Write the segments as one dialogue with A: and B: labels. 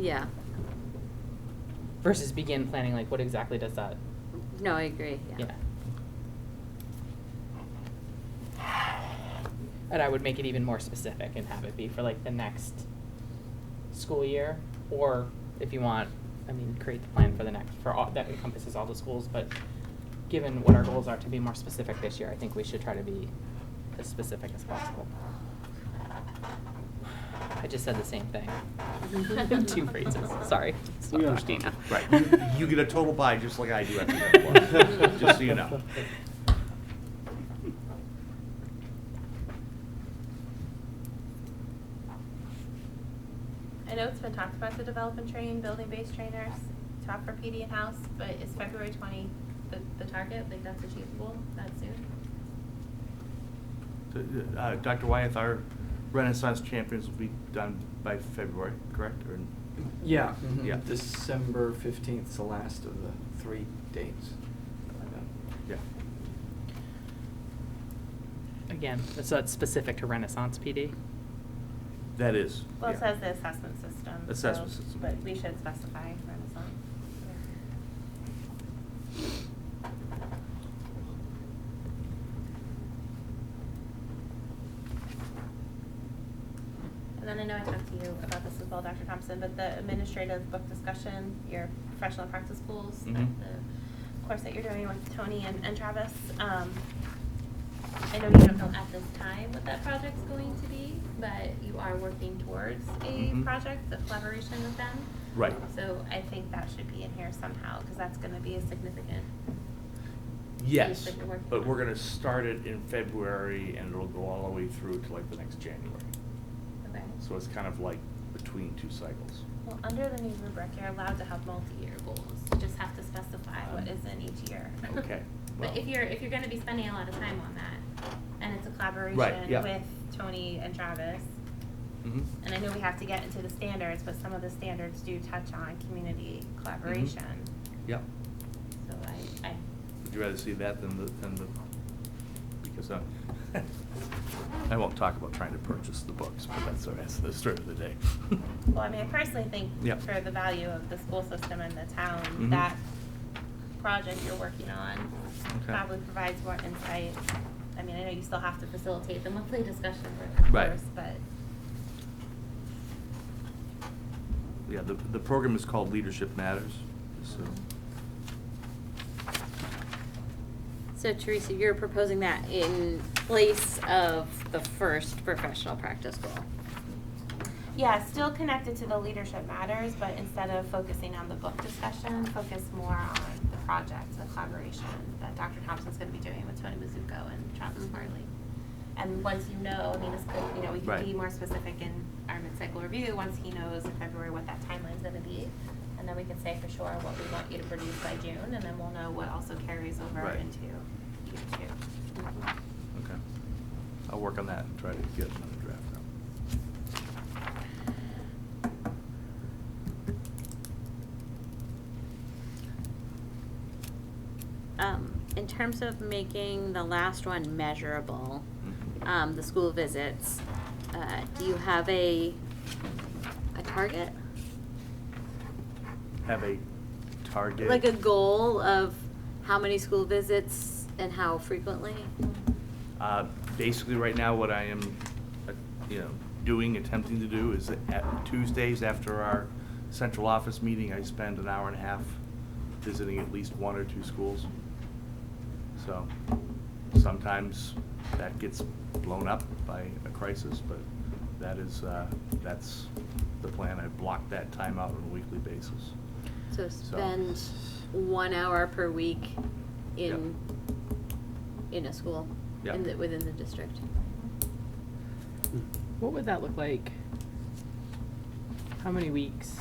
A: Yeah,
B: versus begin planning, like what exactly does that,
A: no, I agree, yeah.
B: yeah. And I would make it even more specific and have it be for like the next school year, or if you want, I mean, create the plan for the next, for all, that encompasses all the schools, but given what our goals are to be more specific this year, I think we should try to be as specific as possible. I just said the same thing. Two phrases, sorry. It's not
C: We understand.
B: Christina.
D: Right, you, you get a total buy just like I do after that one, just so you know.
E: I know it's been talked about to develop and train building-based trainers, talk for PD in-house, but is February twenty the, the target? Like, that's achievable that soon?
D: Uh, Dr. Wyeth, our Renaissance champions will be done by February, correct, or?
C: Yeah,
B: Mhm.
D: Yeah.
C: December fifteenth is the last of the three dates.
D: Yeah.
B: Again, so that's specific to Renaissance PD.
D: That is.
E: Well,
D: yeah.
E: it says the assessment system. so-
D: Assessment system.
E: But we should specify Renaissance. And then I know I talked to you about this as well, Dr. Thompson, but the administrative book discussion, your professional practice schools,
D: Mhm.
E: the course that you're doing with Tony and and Travis, um, I know you don't know at this time what that project's going to be, but you are working towards a
D: Mhm.
E: project, a collaboration with them.
D: Right.
E: So I think that should be in here somehow, because that's gonna be a significant.
D: Yes,
E: that you're working
D: but
E: on.
D: we're gonna start it in February and it'll go all the way through to like the next January.
E: Okay.
D: So it's kind of like between two cycles.
E: Well, under the new rubric, you're allowed to have multi-year goals, you just have to specify what is in each year.
D: Um, Okay, well.
E: But if you're, if you're gonna be spending a lot of time on that, and it's a collaboration
D: yeah.
E: with Tony and Travis,
D: Mhm.
E: And I know we have to get into the standards, but some of the standards do touch on community collaboration.
D: Yep. Mm-hmm.
E: So I, I,
D: Would you rather see that than the, than the, because I, I won't talk about trying to purchase the books, but that's the rest of the story of the day.
E: well, I mean, I personally think
D: Yeah.
E: for the value of the school system and the town,
D: Mhm.
E: that project you're working on
D: Okay.
E: probably provides more insight. I mean, I know you still have to facilitate the monthly discussion for of
D: Right.
E: course, but
D: Yeah, the, the program is called Leadership Matters, so,
A: So Teresa, you're proposing that in place of the first professional practice goal?
E: yeah, still connected to the leadership matters, but instead of focusing on the book discussion, focus more on the project, the collaboration that Dr. Thompson's gonna be doing with Tony Mizuko and Travis
A: Mhm.
D: Mm-hmm.
E: Marley. And once you know, I mean, it's good, you know, we can
D: Right.
E: be more specific in our mid-cycle review, once he knows in February what that timeline's gonna be. And then we can say for sure what we want you to produce by June, and then we'll know what also carries over
D: Right.
E: into year two.
D: okay. I'll work on that and try to get another draft out.
A: Um, in terms of making the last one measurable,
D: Mhm.
A: um, the school visits, uh, do you have a, a target?
D: Have a target.
A: Uh, Like a goal of how many school visits and how frequently?
D: Uh, Basically, right now, what I am, uh, you know, doing, attempting to do is at Tuesdays after our central office meeting, I spend an hour and a half visiting at least one or two schools. So sometimes that gets blown up by a crisis, but that is, uh, that's the plan. I block that time out on a weekly basis.
A: So spend one hour per week in, in a school,
D: Yeah.
A: in the, within the district.
B: What would that look like? How many weeks?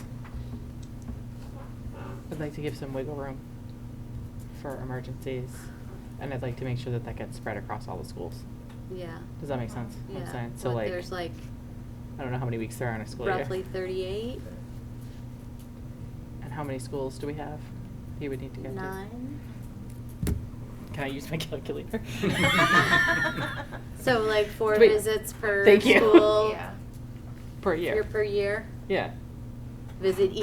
B: I'd like to give some wiggle room for emergencies, and I'd like to make sure that that gets spread across all the schools.
A: Yeah.
B: Does that make sense? what I'm
A: Yeah.
B: saying? So
A: What,
B: like,
A: There's like
B: I don't know how many weeks there are in a school year.
A: roughly thirty-eight,
B: And how many schools do we have? You would need to get to.
A: nine?
B: Can I use my calculator?
A: So like four
B: Wait.
A: visits per
B: Thank you.
A: school
E: Yeah.
B: Per
A: year
B: year.
A: per year?
B: Yeah.
A: Visit